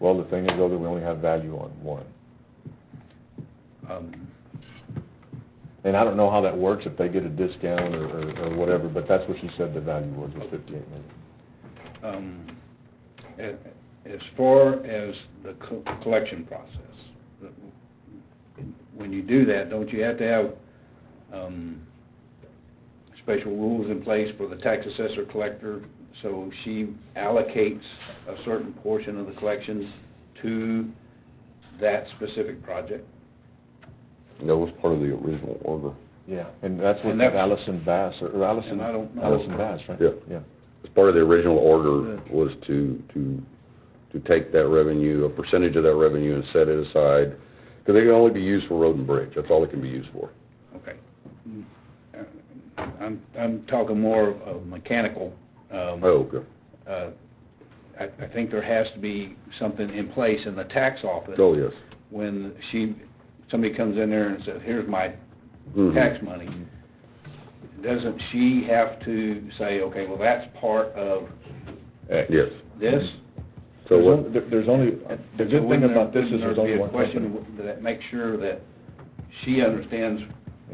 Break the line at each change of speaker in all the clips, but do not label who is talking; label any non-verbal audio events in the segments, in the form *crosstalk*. Well, the thing is though, that we only have value on one.
Um,
And I don't know how that works, if they get a discount or, or, or whatever, but that's what she said the value was, was fifty-eight million.
um, a- As far as the co- collection process, the- when you do that, don't you have to have um, special rules in place for the tax assessor collector? So she allocates a certain portion of the collections to that specific project?
That was part of the original order.
Yeah, and that's what
And that's-
Allison Bass, or Allison,
And I don't know.
Allison Bass, right?
Yeah.
Yeah.
As part of the original order was to, to, to take that revenue, a percentage of that revenue and set it aside, because it can only be used for road and bridge, that's all it can be used for.
Okay. Uh, I'm, I'm talking more of mechanical. um,
Oh, okay.
uh, I I think there has to be something in place in the tax office
Oh, yes.
when she, somebody comes in there and says, here's my
Mm-hmm.
Mhm.
tax money. Doesn't she have to say, okay, well, that's part of
Yes.
this?
So
There's
what,
on- there- There's only, Mm-hmm. the good
So
thing
wouldn't there-
about this is there's
wouldn't
only one
there be a
company.
question that makes sure that she understands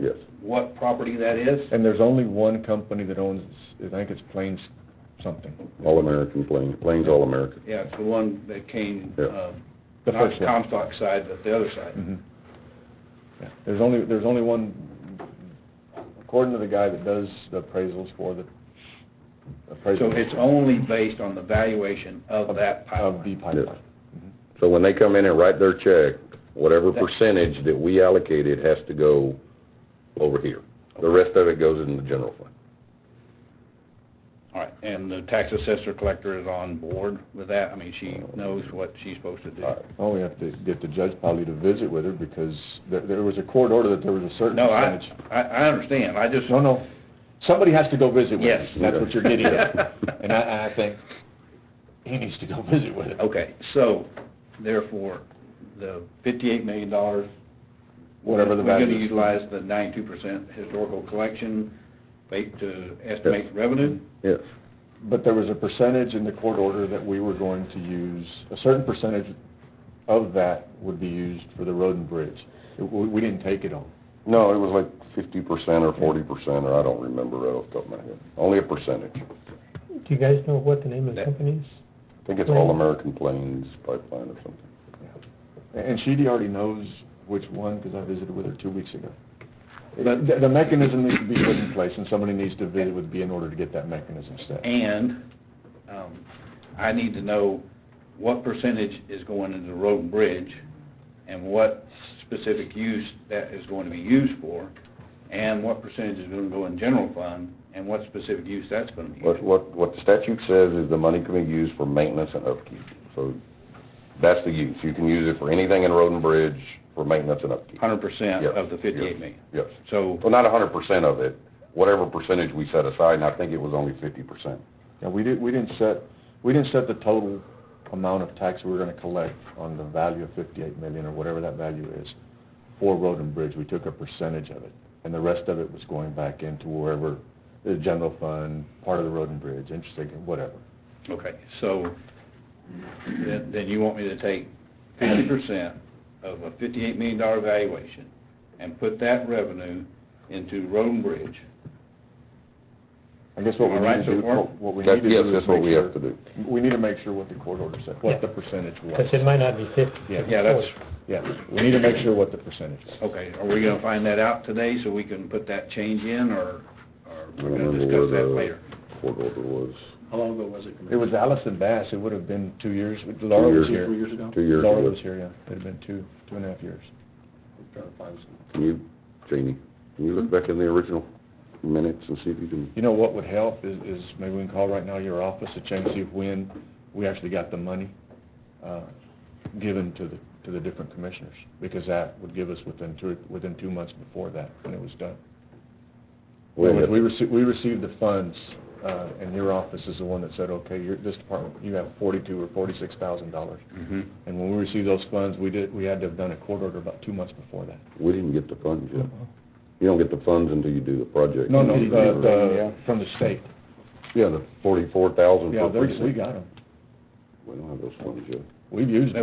yes,
what property that is?
And there's only one company that owns, I think it's Plains something.
All-American, Plains, Plains All-American.
Yeah, it's the one that came,
Yeah.
uh,
The
not
first one.
Comstock side, but the other side.
Mhm. Mm-hmm. Yeah. There's only, there's only one, according to the guy that does the appraisals for the
So
appraisal
it's only based on the valuation of
of
that
of
pipeline?
the pipeline.
So when they come in and write their check, whatever
That-
percentage that we allocated has to go over here. The rest of it goes in the general fund.
All right, and the tax assessor collector is on board with that? I mean, she knows what she's supposed to do?
All right.
Oh, we have to get the judge probably to visit with her because there, there was a court order that there was a certain
No, I,
percentage.
I, I understand, I just...
No, no, somebody has to go visit with her.
Yes.
That's what you're getting at.
*laughs*
And I, and I think he needs to go visit with her.
Okay, so therefore, the fifty-eight million dollars...
Whatever the
We're
value
gonna
is.
utilize the ninety-two percent historical collection rate to estimate revenue?
Yes.
But there was a percentage in the court order that we were going to use, a certain percentage of that would be used for the road and bridge. It- We, we didn't take it on.
No, it was like fifty percent or forty percent, or I don't remember right off the top of my head. Only a percentage.
Do you guys know what the name of the
That-
company is?
I think it's All American Plains Pipeline or something.
And Sheedy already knows which one, because I visited with her two weeks ago. But the, the mechanism needs to be put in place, and somebody needs to visit with B in order to get that mechanism set.
And, um, I need to know what percentage is going into road and bridge, and what specific use that is going to be used for, and what percentage is gonna go in general fund, and what specific use that's gonna be.
What,
used.
what, what the statute says is the money can be used for maintenance and upkeep. So that's the use. You can use it for anything in road and bridge for maintenance and upkeep.
Hundred percent
Yes,
of the
yes,
fifty-eight million.
Yes.
So,
Well, not a hundred percent of it, whatever percentage we set aside, and I think it was only fifty percent.
Yeah, we did, we didn't set, we didn't set the total amount of tax we were gonna collect on the value of fifty-eight million, or whatever that value is, for road and bridge, we took a percentage of it, and the rest of it was going back into wherever, the general fund, part of the road and bridge, interesting, whatever.
okay, so, then, then you want me to take fifty percent of a fifty-eight million dollar valuation and put that revenue into road and bridge,
I guess what we
All right,
need to
so
do,
we're-
what- what we need
That,
to
yes,
do is
that's what
make
we
sure,
have to do.
we need to make sure what the court order said,
Yeah.
what the percentage was.
Because it might not be fifty.
Yeah.
yeah, that's,
Yeah, we need to make sure what the percentage was.
Okay, are we gonna find that out today so we can put that change in, or, or we're
Remember
gonna discuss
where
that
the-
later?
Court order was
How long ago was it?
It was Allison Bass, it would have been two years, Laura was
Two years.
Three
here.
years ago?
two years
Laura
ago.
was here, yeah, it'd have been two, two and a half years.
Trying to find some.
Can you, Janie, can you look back in the original minutes and see if you can?
You know what would help is, is maybe we can call right now your office to check and see when we actually got the money, uh, given to the, to the different commissioners, because that would give us within two, within two months before that, when it was done. We
Well,
received, we received the funds, uh, and your office is the one that said, okay, your, this department, you have forty-two or forty-six thousand dollars.
Mm-hmm.
And when we received those funds, we did, we had to have done a court order about two months before that.
We didn't get the funds yet. You don't get the funds until you do the project.
No, no,
You
the,
don't get it.
the, from the state.
Yeah, the forty-four thousand
Yeah,
for
they're- we
precinct.
got them.
We don't have those funds yet.
We've used them.